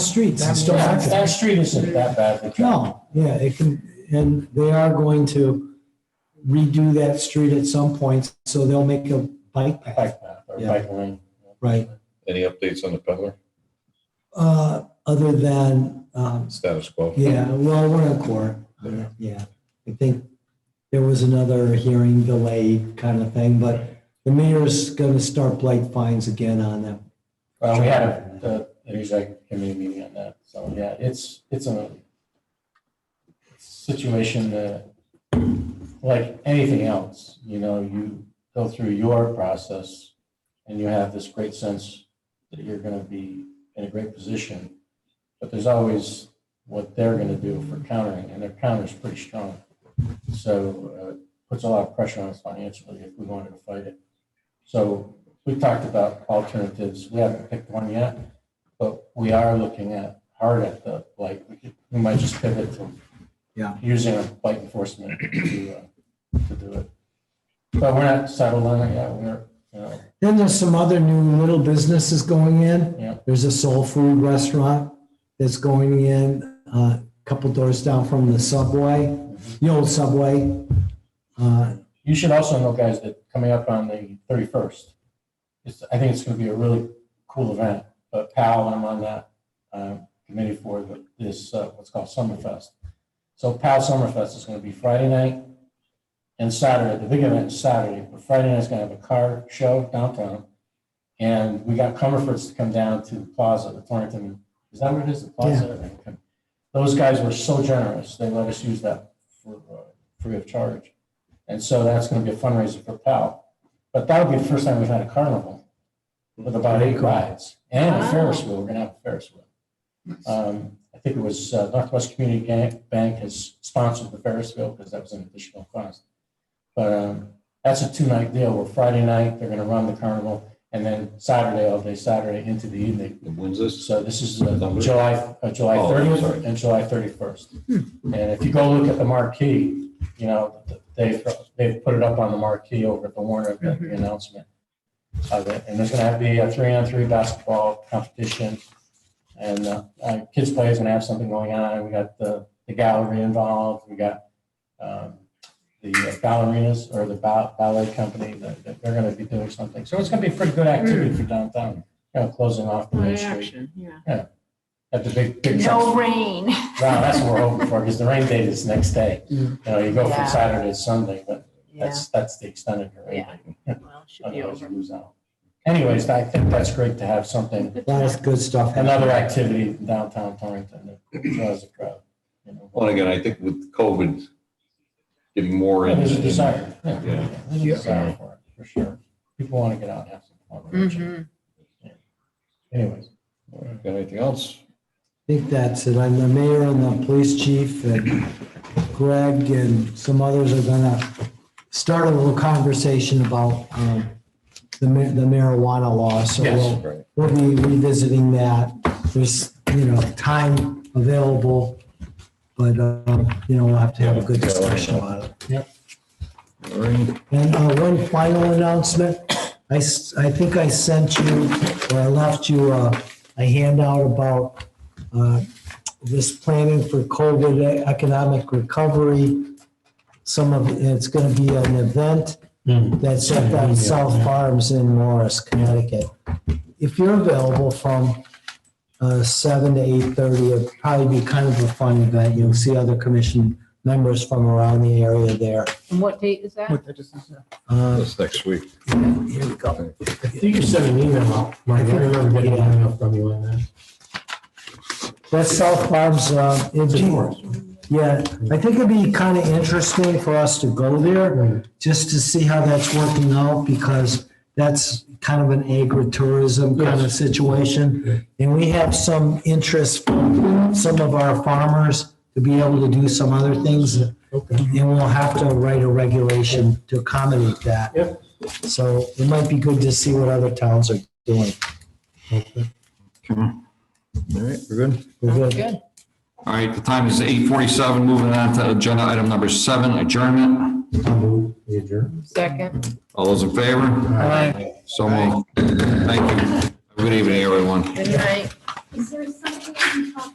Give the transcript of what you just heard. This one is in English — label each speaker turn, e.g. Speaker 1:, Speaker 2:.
Speaker 1: streets and stuff
Speaker 2: Star
Speaker 1: like
Speaker 2: Star
Speaker 1: that.
Speaker 2: Street isn't that bad. of a job.
Speaker 1: No, yeah, it can, and they are going to redo that street at some point, so they'll make a bike path,
Speaker 2: Bike path or
Speaker 1: Yeah.
Speaker 2: bike lane.
Speaker 1: right?
Speaker 3: Any updates on the peddler?
Speaker 1: Uh, other than, um,
Speaker 3: Status quo?
Speaker 1: yeah, well, we're in court,
Speaker 3: Yeah.
Speaker 1: yeah. I think there was another hearing delay kind of thing, but the mayor's gonna start blight fines again on them.
Speaker 2: Well, we had a, a, an executive committee meeting on that, so yeah, it's, it's a situation that, like anything else, you know, you go through your process and you have this great sense that you're gonna be in a great position, but there's always what they're gonna do for countering, and their counter's pretty strong. So, uh, puts a lot of pressure on us financially if we wanted to fight it. So we talked about alternatives. We haven't picked one yet, but we are looking at hard at the, like, we could- we might just pivot to
Speaker 1: Yeah.
Speaker 2: using a blight enforcement to, uh, to do it. But we're not settled on it yet. We're, you know,
Speaker 1: Then there's some other new little businesses going in.
Speaker 2: Yeah.
Speaker 1: There's a soul food restaurant that's going in, uh, a couple doors down from the subway, the old subway. Uh,
Speaker 2: you should also know, guys, that coming up on the thirty-first, it's, I think it's gonna be a really cool event, but Pal, I'm on that, um, committee for the- this, uh, what's called Summerfest. So Pal Summerfest is gonna be Friday night and Saturday, the big event is Saturday, but Friday night's gonna have a car show downtown. And we got Comerford's to come down to the plaza, the Torrington, is that what it is, the plaza? Those guys were so generous, they let us use that for, uh, free of charge. And so that's going to be a fundraiser for PAL. But that'll be the first time we've had a carnival with about eight rides and a Ferris wheel. We're going to have a Ferris wheel. Um, I think it was uh, Northwest Community Ga- Bank has sponsored the Ferris wheel because that was an additional cost. But um, that's a two-night deal where Friday night, they're going to run the carnival and then Saturday, all day Saturday into the evening.
Speaker 3: And When's this?
Speaker 2: So this is uh,
Speaker 3: Number?
Speaker 2: July, uh, July
Speaker 3: Oh, I'm sorry.
Speaker 2: 30th and July 31st. And if you go look at the marquee, you know, th- they've, they've put it up on the marquee over at the Warner, event, the announcement of it. And there's going to be a three-on-three basketball competition. And uh, uh, Kids Play is going to have something going on. We got the, the gallery involved. We got um, the ballerinas or the ba- ballet company that that they're going to be doing something. So it's going to be a pretty good activity for downtown, you know, closing off the main street
Speaker 4: action, yeah.
Speaker 2: at the big, big
Speaker 4: No
Speaker 2: trucks.
Speaker 4: rain.
Speaker 2: Wow, that's what we're hoping for, because the rain date is next day.
Speaker 1: Yeah.
Speaker 2: You know, you go
Speaker 4: Yeah.
Speaker 2: from Saturday to Sunday, but
Speaker 4: Yeah,
Speaker 2: that's, Uh, that's the extent of your rain
Speaker 4: Yeah.
Speaker 2: date.
Speaker 4: well, it should be
Speaker 2: Otherwise you
Speaker 4: over.
Speaker 2: lose out. Anyways, I think that's great to have something,
Speaker 1: a lot of good stuff. happening.
Speaker 2: another activity in downtown Torrington that draws a crowd. you know.
Speaker 3: Well, again, I think with COVID getting more.
Speaker 2: Yeah,
Speaker 3: in-
Speaker 2: There's a desire. yeah,
Speaker 3: Yeah.
Speaker 2: There's a desire for it, for sure. People want to get out and have some fun.
Speaker 4: Mhm.
Speaker 2: Anyways,
Speaker 3: Got anything else?
Speaker 1: I think that's it. I'm the mayor and the police chief and Greg and some others are gonna start a little conversation about, um, the ma- the marijuana law, so
Speaker 2: Yes.
Speaker 1: we'll
Speaker 3: Right.
Speaker 1: we'll be revisiting that. There's, you know, time available, but, um, you know, we'll have to have a good discussion about it.
Speaker 3: All right.
Speaker 1: And uh, one final announcement. I, s- I think I sent you, or I left you uh, a handout about uh, this planning for COVID economic recovery. Some of, it's going to be an event that's at the South Farms in Morris, Connecticut. If you're available from uh, seven to eight thirty, it'd probably be kind of a fun event. You'll see other commission members from around the area there.
Speaker 4: And what date is that?
Speaker 1: Uh,
Speaker 3: That's next week.
Speaker 1: Here we go.
Speaker 5: I think you sent an email out, Mike. I remember getting an email from you on that.
Speaker 1: That's South Farms, uh, in Morris. Yeah, I think it'd be kind of interesting for us to go there just to see how that's working out because that's kind of an agritourism kind of situation. And we have some interest from some of our farmers to be able to do some other things. And
Speaker 5: Okay.
Speaker 1: we'll have to write a regulation to accommodate that.
Speaker 5: Yep.
Speaker 1: So it might be good to see what other towns are doing.
Speaker 6: All right, we're good.
Speaker 1: We're good.
Speaker 6: All right, the time is eight forty-seven. Moving on to agenda item number seven, adjournment.
Speaker 5: I'll move, We adjourn.
Speaker 4: Second.
Speaker 6: All those in favor? So moved. Thank you. Have a Good evening, everyone.
Speaker 4: Good night.
Speaker 7: Is there something Thank you.